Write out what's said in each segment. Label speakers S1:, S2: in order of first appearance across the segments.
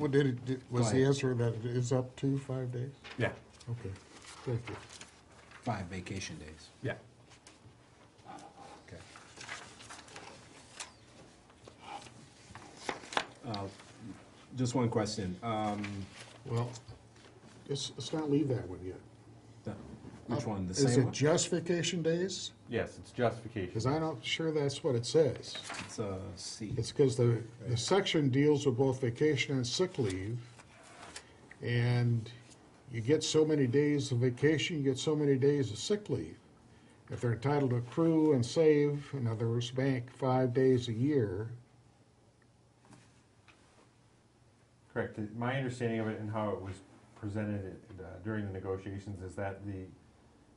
S1: Well, did it, did- was
S2: Go
S1: the
S2: ahead.
S1: answer that it is up to five days?
S3: Yeah,
S1: Okay, thank you.
S2: Five vacation days,
S3: yeah.
S2: okay. Uh, Just one question. Um,
S1: Well, let's, let's not leave that one yet.
S2: the- Which one, the
S1: Is
S2: same
S1: it
S2: one?
S1: just vacation days?
S3: Yes, it's justification.
S1: Because I'm not sure that's what it says.
S2: It's uh, C.
S1: It's because the, the section deals with both vacation and sick leave. And you get so many days of vacation, you get so many days of sick leave. If they're entitled to accrue and save, in other words, bank five days a year,
S3: Correct. My understanding of it and how it was presented uh, during the negotiations is that the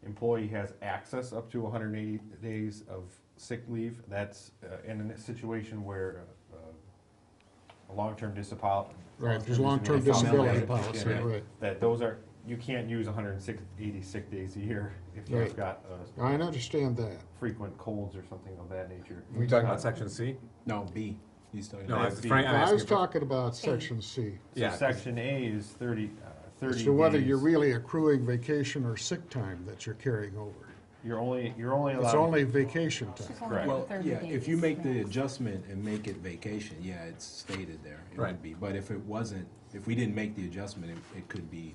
S3: employee has access up to 180 days of sick leave. That's uh, in a situation where uh, a long-term disability.
S1: Right, there's long-term disability policy, right.
S3: That those are, you can't use 180 sick days a year if you've
S1: Right.
S3: got uh,
S1: I understand that.
S3: frequent colds or something of that nature.
S4: We talking about section C?
S2: No, B. He's talking
S4: No,
S2: about.
S4: I-
S3: That's B.
S4: Frank, I'm
S1: I was
S4: asking. for-
S1: talking about section C.
S3: So
S4: Yeah, 'cause-
S3: section A is 30, uh, 30
S1: So whether you're
S3: days.
S1: really accruing vacation or sick time that you're carrying over.
S3: You're only, you're only allowed.
S1: It's only vacation
S5: She's
S1: time.
S5: only
S3: Correct.
S5: got
S2: Well,
S5: 30
S2: yeah, if you
S5: days,
S2: make the
S5: yeah.
S2: adjustment and make it vacation, yeah, it's stated there. It would
S4: Right.
S2: be, but if it wasn't, if we didn't make the adjustment, it, it could be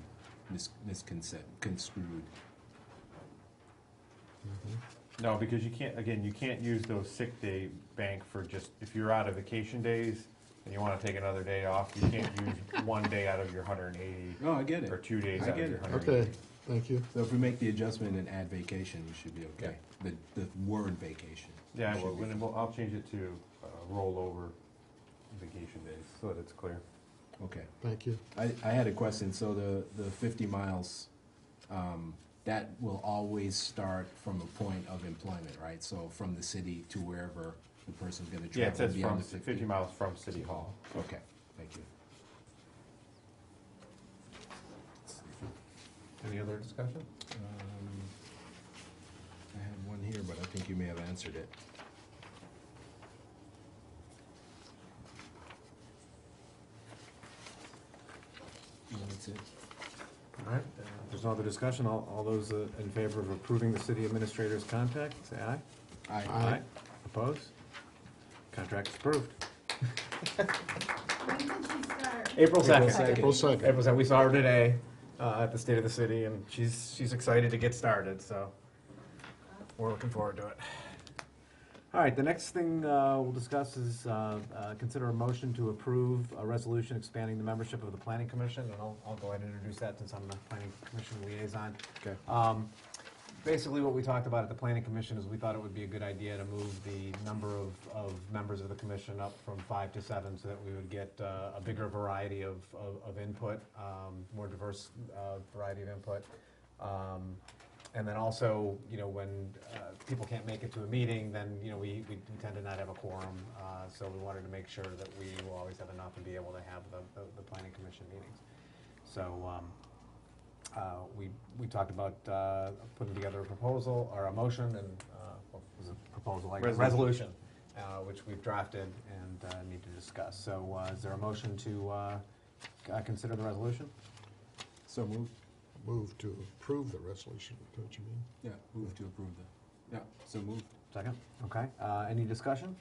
S2: mis- misconcept, construed.
S3: No, because you can't, again, you can't use those sick day bank for just, if you're out of vacation days and you wanna take another day off, you can't use one day out of your hundred and eighty
S2: No, I get it.
S3: or two days
S2: I
S3: out of
S2: get
S3: your
S2: it.
S3: hundred and eighty.
S1: Okay, thank you.
S2: So if we make the adjustment and add vacation, we should be okay. The, the word vacation.
S3: Yeah,
S2: should
S3: well,
S2: be-
S3: then we'll, I'll change it to, uh, rollover vacation days, so that it's clear.
S2: Okay.
S1: Thank you.
S2: I, I had a question, so the, the fifty miles, um, that will always start from a point of employment, right? So from the city to wherever the person's gonna
S3: Yeah, it
S2: travel
S3: says
S2: beyond
S3: from,
S2: the
S3: ci-
S2: fifty.
S3: fifty miles from City Hall.
S2: Okay, thank you.
S3: Any other discussion?
S2: Um, I had one here, but I think you may have answered it. No, that's it.
S4: All right, uh, if there's no other discussion, all, all those uh, in favor of approving the city administrator's contract, say aye.
S2: I,
S1: Aye.
S4: Opposed? Contract's approved.
S6: When did she start?
S4: April second.
S6: second.
S1: April second.
S4: April second, we saw her today, uh, at the State of the City, and she's, she's excited to get started, so we're looking forward to it. All right, the next thing, uh, we'll discuss is, uh, uh, consider a motion to approve a resolution expanding the membership of the Planning Commission, and I'll, I'll go ahead and introduce that since I'm the Planning Commission liaison.
S2: Okay.
S4: Um, basically what we talked about at the planning commission is we thought it would be a good idea to move the number of, of members of the commission up from five to seven so that we would get uh, a bigger variety of, of, of input, um, more diverse uh, variety of input. Um, and then also, you know, when uh, people can't make it to a meeting, then, you know, we, we tend to not have a quorum. Uh, so we wanted to make sure that we will always have enough and be able to have the, the, the planning commission meetings. So, um, uh, we, we talked about uh, putting together a proposal or a motion and, uh, what was it, proposal, I guess,
S3: Resolution.
S4: resolution, uh, which we've drafted and uh, need to discuss. So uh, is there a motion to uh, c- uh, consider the resolution?
S2: so move,
S1: Move to approve the resolution, don't you mean?
S2: yeah, move to approve the, yeah, so moved.
S4: Second, okay. Uh, Any discussion?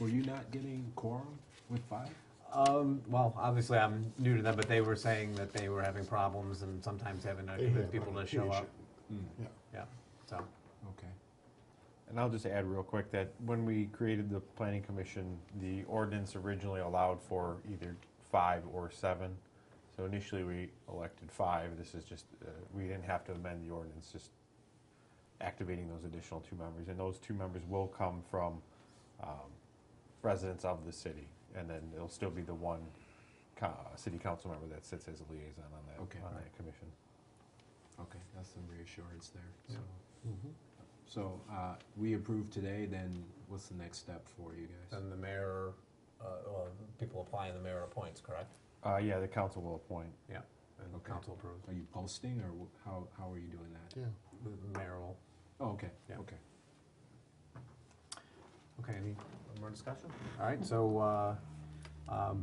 S2: Were you not getting quorum with five?
S4: Um, well, obviously, I'm new to them, but they were saying that they were having problems and sometimes having to
S1: They
S4: convince
S1: have
S4: people to
S1: problems,
S4: show up.
S2: Mm.
S1: Yeah.
S4: Yeah, so,
S2: Okay.
S3: And I'll just add real quick that when we created the planning commission, the ordinance originally allowed for either five or seven. So initially, we elected five. This is just, uh, we didn't have to amend the ordinance, just activating those additional two members. And those two members will come from um, residents of the city. And then it'll still be the one co- uh, city council member that sits as a liaison on
S2: Okay.
S3: that, on that commission.
S2: Okay, that's some reassurance there, so.
S1: Mm-hmm.
S2: So, uh, we approve today, then what's the next step for you guys?
S4: then the mayor, uh, well, people apply and the mayor appoints, correct?
S3: Uh, Yeah, the council will appoint.
S4: Yeah, and the
S2: Okay.
S4: council approves.
S2: Are you posting, or wh- how, how are you doing that?
S1: Yeah.
S4: The mayor will.
S2: Oh, okay,
S4: Yeah.
S2: okay.
S4: Okay, any more discussion? All right, so, uh, Um,